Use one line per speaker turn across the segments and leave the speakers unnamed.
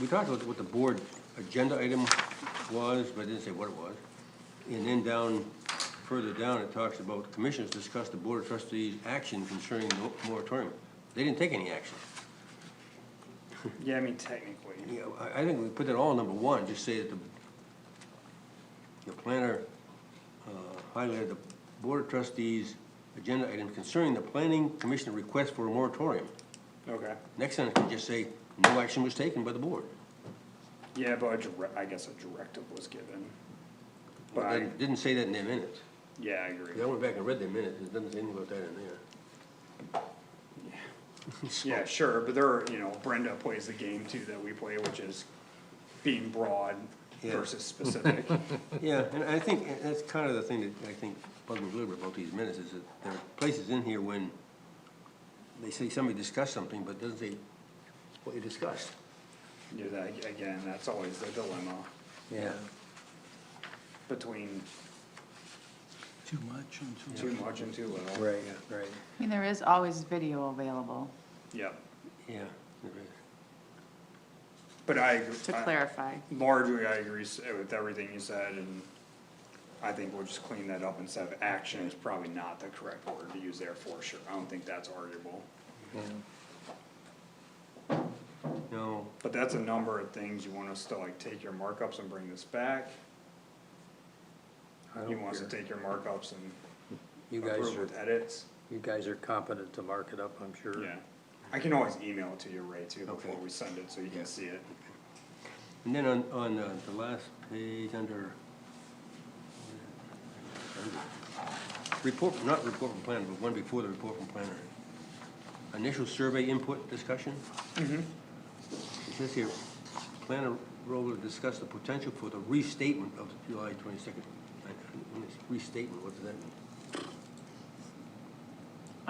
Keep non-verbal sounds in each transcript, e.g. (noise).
we talked about what the board agenda item was, but it didn't say what it was. And then down, further down, it talks about commissioners discuss the board of trustees' action concerning the moratorium. They didn't take any action.
Yeah, I mean, technically.
Yeah, I, I think we put that all in number one, just say that the, the planner, uh, highlighted the board of trustees' agenda item concerning the planning commission request for a moratorium.
Okay.
Next sentence can just say, no action was taken by the board.
Yeah, but a dire- I guess a directive was given. But
But
I,
it didn't say that in their minutes.
yeah, I agree.
Yeah, I went back and read their minutes, it doesn't say anything about that in there. So-
Yeah, sure, but there are, you know, Brenda plays the game too that we play, which is being broad
Yeah.
versus specific.
Yeah, and I think that's kind of the thing that I think bugs me a little bit about these minutes, is that there are places in here when they say somebody discussed something, but it doesn't say what you discussed.
You know, that, again, that's always the dilemma
Yeah.
between
Too much and too.
too much and too little.
Right, right.
I mean, there is always video available,
Yeah,
Yeah. there is.
but I. agree-
to
I-
clarify.
Largely, I agree s- with everything you said and I think we'll just clean that up and say action is probably not the correct word to use there for sure. I don't think that's arguable.
No,
But that's a number of things, you want us to like take your markups and bring this back?
I
You
don't
want us to
care.
take your markups and
You guys
approve
are,
with edits?
you guys are competent to mark it up, I'm sure.
Yeah, I can always email it to you, Ray, too, before
Okay.
we send it, so you
Yeah.
can see it.
and then on, on uh, the last page, under report, not report from planner, but one before the report from planner. Initial survey input discussion? It says here, planner role to discuss the potential for the restatement of July twenty-second. Restatement, what does that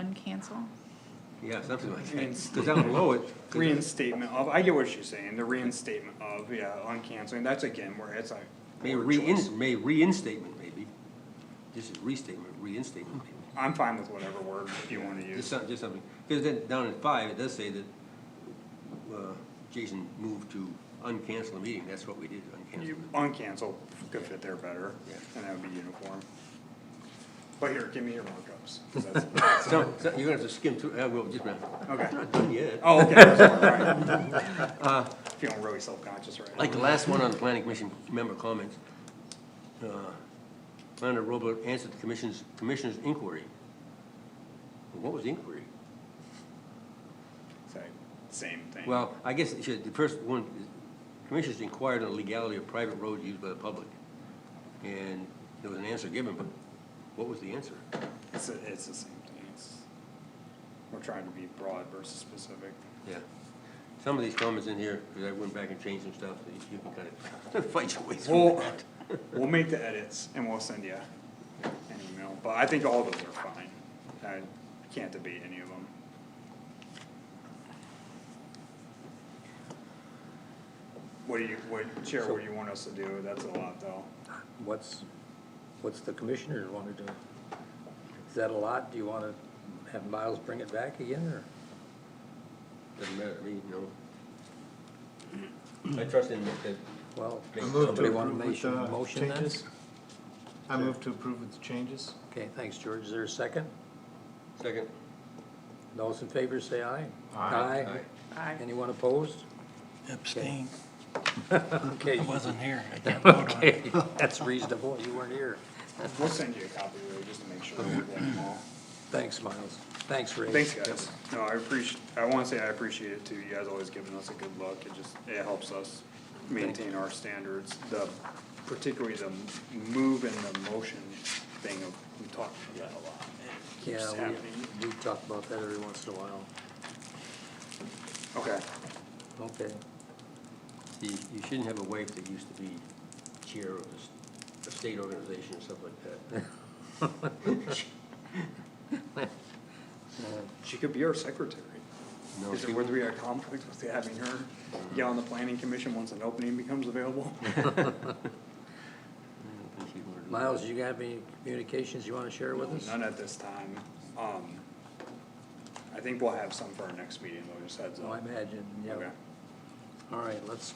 mean?
Uncancel?
Yeah, something like that, because
Reinstate.
down below it. 'cause
Reinstatement of, I get what you're saying, the reinstatement of, yeah, on canceling, that's again where it's like.
May
board choice.
rein, may reinstatement maybe. This is restatement, reinstatement maybe.
I'm fine with whatever word you wanna
Just
use.
something, just something, because then down in five, it does say that, uh, Jason moved to uncancel the meeting, that's what we did, uncancel.
You, uncancel could fit there better,
Yeah.
and that would be uniform. But here, give me your markups, 'cause
(laughs)
that's,
So, so you're gonna have to skim through, uh, well, just a minute,
okay.
not done yet.
Oh, okay, that's all right. Feeling really self-conscious right now.
Uh, Like the last one on the planning commission member comments. uh, Planner Robert answered the commission's, commissioner's inquiry. Well, What was the inquiry?
It's like, Same thing.
Well, I guess it should, the first one, is, commissioners inquired on the legality of private roads used by the public. And there was an answer given, but what was the answer?
It's, the- it's the same thing, it's, we're trying to be broad versus specific.
Yeah. Some of these comments in here, because I went back and changed some stuff, so you can kind of (laughs) fight your way through
We'll,
that.
we'll make the edits and we'll send you an email, but I think all those are fine. I can't debate any of them. What do you, what, Chair, what do you want us to do? That's a lot though.
What's, what's the commissioner wanna do? Is that a lot? Do you wanna have Miles bring it back again, or?
Doesn't matter to me, no. I trust in that, that-
Well,
I move
to
somebody wanna
approve
make
with
a
the
motion then?
changes. I move to approve with the changes.
Okay, thanks, George. Is there a second?
second,
Those in favor say aye.
Aye.
Aye.
Anyone opposed?
Abstain.
Okay,
I
(laughs)
wasn't here. I can't vote on it.
that's reasonable. You weren't here.
We'll send you a copy Ray, just to make sure we get them all.
Thanks, Miles. Thanks, Ray.
Thanks, guys. No, I appreciate, I wanna say I appreciate it too. You guys always giving us a good look. It just, it helps us maintain our standards. The, particularly the m- move and the motion thing of, we talked about that a lot. It keeps
Yeah,
happening.
we, we talk about that every once in a while.
Okay,
Okay,
See, you shouldn't have a wife that used to be chair of this- a state organization or something
(laughs)
like
(laughs)
that.
she could be our secretary.
(laughs) No,
Is
she
it, would there be a conflict with having her get on the planning commission once an opening becomes available?
I think she wanted to-
Miles, you got any communications you wanna share with us?
None at this time. Um, I think we'll have some for our next meeting, though, just heads
Oh, I
up.
imagine, yeah.
Okay.
All right, let's